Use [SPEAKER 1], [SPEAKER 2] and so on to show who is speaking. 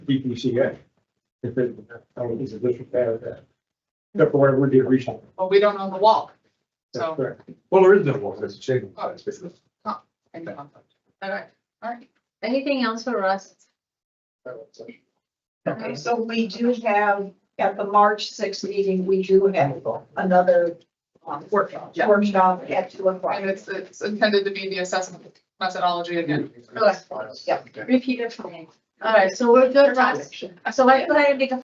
[SPEAKER 1] DPCA. If it, I mean, it's a district that, that, except for whatever we did recently.
[SPEAKER 2] Well, we don't own the wall.
[SPEAKER 1] That's
[SPEAKER 2] So.
[SPEAKER 1] correct. Well, there is no law, that's a change.
[SPEAKER 2] oh, it's just a comp- and conflict. All right, all right.
[SPEAKER 3] Anything else for us?
[SPEAKER 4] Okay, so we do have, at the March sixth meeting, we do have another um, workshop,
[SPEAKER 2] Yeah.
[SPEAKER 4] workshop at two o'clock.
[SPEAKER 2] And it's, it's intended to be the assessment methodology again.
[SPEAKER 4] Yep.
[SPEAKER 3] Repeat it for me. All right, so we're good, Russ. So why could I make a